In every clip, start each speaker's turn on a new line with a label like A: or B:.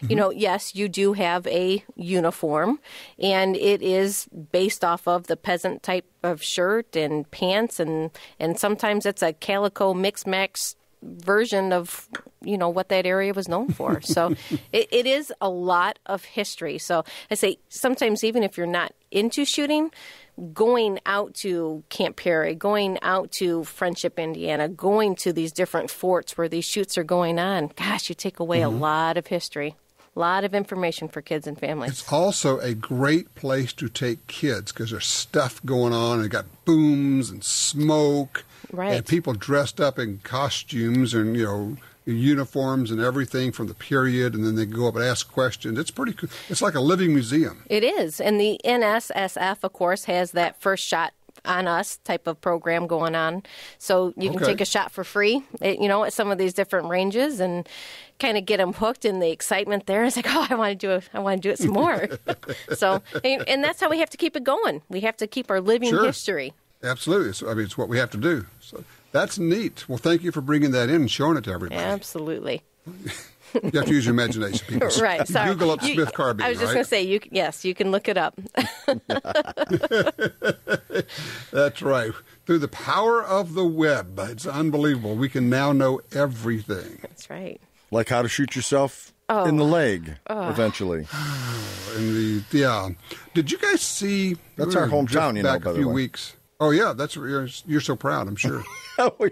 A: you know, yes, you do have a uniform, and it is based off of the peasant type of shirt and pants, and and sometimes it's a calico mix max version of you know what that area was known for. so it, it is a lot of history. So I say sometimes even if you're not into shooting, going out to Camp Perry, going out to Friendship, Indiana, going to these different forts where these shoots are going on, gosh, you take away a lot of history, a lot of information for kids and families.
B: It's also a great place to take kids because there's stuff going on. And they got booms and smoke,
A: Right.
B: And people dressed up in costumes and you know uniforms and everything from the period, and then they go up and ask questions. It's pretty. cool. It's like a living museum.
A: It is. And the NSSF, of course, has that first shot on us type of program going on. So you can
B: Okay.
A: take a shot for free, eh, you know, at some of these different ranges and kind of get them hooked in the excitement there. It's like, oh, I want to do it. I want to do it some more. so, and, and that's how we have to keep it going. We have to keep our living
B: Sure.
A: history.
B: Absolutely. So, I mean, it's what we have to do. So that's neat. Well, thank you for bringing that in and showing it to everybody.
A: Absolutely.
B: You have to use your imagination, people.
A: Right. Sorry.
B: Google up
A: You-
B: Smith carbine.
A: I was just
B: right?
A: going to say, you c- yes, you can look it up.
B: That's right. Through the power of the web, it's unbelievable. We can now know everything.
A: that's right.
C: Like how to shoot yourself in the leg eventually.
B: And the yeah, did you guys see?
C: That's
B: we
C: our
B: were
C: hometown,
B: just
C: you know,
B: Back
C: by
B: a
C: the
B: few
C: way.
B: weeks. Oh yeah, that's you're, you're so proud. I'm sure.
C: Oh,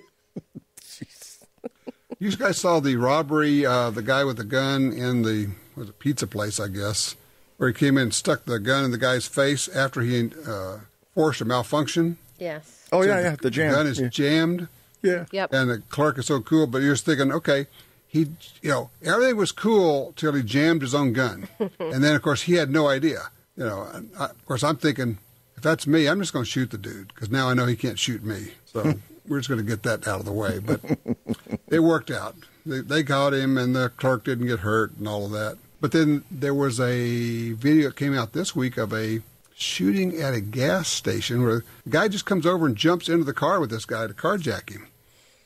B: you guys saw the robbery, uh, the guy with the gun in the was it pizza place, I guess, where he came in and stuck the gun in the guy's face after he uh, forced a malfunction.
A: Yes.
C: oh yeah, yeah, the jam.
B: gun is
C: yeah.
B: jammed.
C: yeah.
A: Yep.
B: And the clerk is so cool, but you're just thinking, okay, he, you know, everything was cool till he jammed his own gun, and then of course he had no idea. You know, and I, of course I'm thinking, if that's me, I'm just going to shoot the dude because now I know he can't shoot me. So we're just going to get that out of the way. But it worked out. They, they got him, and the clerk didn't get hurt, and all of that. But then there was a video that came out this week of a shooting at a gas station where a guy just comes over and jumps into the car with this guy to carjack him.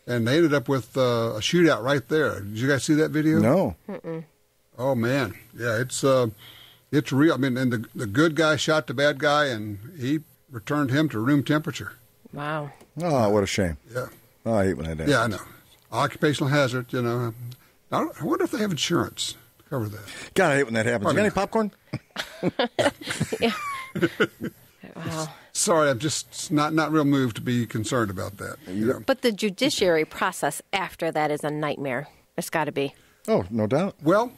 B: And they ended up with uh, a shootout right there. Did you guys see that video?
C: No.
B: Oh man, yeah, it's uh, it's real. I mean, and the the good guy shot the bad guy, and he returned him to room temperature.
A: Wow.
C: Oh, what a shame.
B: Yeah.
C: Oh, I hate when I do.
B: Yeah, I know. Occupational hazard, you know. I, don't, I wonder if they have insurance to cover that.
C: God, I hate when that happens. You got
B: Probably
C: any
B: not.
C: popcorn?
A: Yeah. wow.
B: Sorry, I'm just not not real moved to be concerned about that. Yeah.
A: But the judiciary process after that is a nightmare. It's got to be.
C: Oh, no doubt.
B: Well,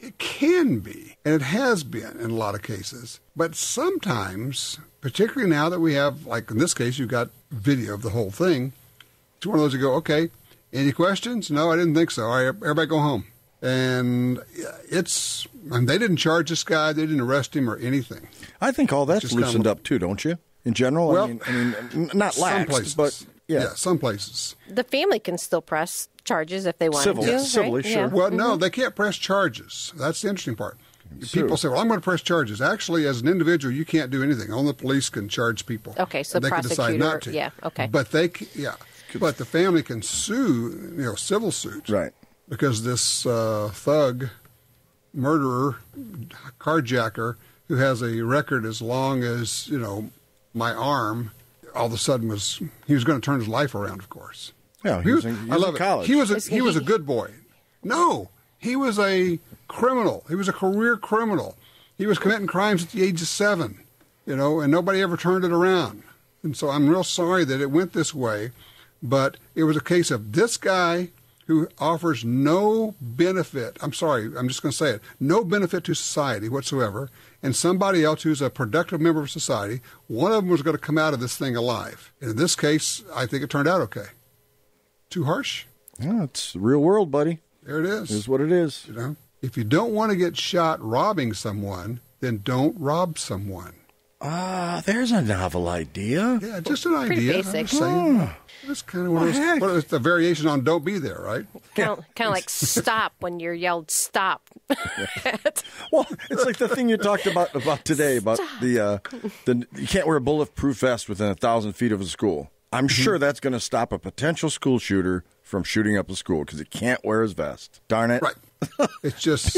B: it can be, and it has been in a lot of cases. But sometimes, particularly now that we have, like in this case, you've got video of the whole thing, it's one of those you go, okay, any questions? No, I didn't think so. All right, everybody go home. And yeah, it's, and they didn't charge this guy, they didn't arrest him or anything.
C: I think all that's
B: Just
C: loosened
B: kinda-
C: up too, don't you? In general,
B: Well,
C: I mean, I mean n- not
B: some
C: lax,
B: places.
C: but yeah.
B: some places.
A: The family can still press charges if they want
C: Civil,
A: to.
C: yeah,
A: right?
C: civilly, sure.
A: Yeah.
B: Well, no, they can't press charges. That's the interesting part.
C: So-
B: People say, "Well, I'm going to press charges." Actually, as an individual, you can't do anything. Only the police can charge people.
A: Okay, so
B: And they can decide
A: prosecutor-
B: not to.
A: yeah, okay.
B: But they, c- yeah, but the family can sue, you know, civil suits,
C: Right.
B: Because this uh, thug, murderer, carjacker, who has a record as long as you know my arm, all of a sudden was he was going to turn his life around. Of course.
C: Yeah, he
B: He
C: was
B: was,
C: in- he
B: I
C: was
B: love
C: in
B: it.
C: college.
B: He was a,
A: Was
B: he was a
A: he-
B: good boy. No, he was a criminal. He was a career criminal. He was committing crimes at the age of seven, you know, and nobody ever turned it around. And so I'm real sorry that it went this way, but it was a case of this guy who offers no benefit. I'm sorry, I'm just going to say it no benefit to society whatsoever, and somebody else who's a productive member of society, one of them was going to come out of this thing alive. And in this case, I think it turned out okay. Too harsh?
C: Yeah, it's the real world, buddy.
B: There it is.
C: It is what it is.
B: You know, if you don't want to get shot robbing someone, then don't rob someone.
C: Ah, there's a novel idea.
B: Yeah, just an
A: Pretty
B: idea.
A: basic.
B: I'm just saying. That's kind of what
C: Ah. Well, heck.
B: it's, well, it's the variation on "Don't be there," right?
A: Kind, of, kind of like stop when you're yelled stop.
C: Well, it's like the thing you talked about about today about the uh, the you can't wear a bulletproof vest within a thousand feet of a school. I'm sure that's going to stop a potential school shooter from shooting up a school because he can't wear his vest. Darn it!
B: Right. It's just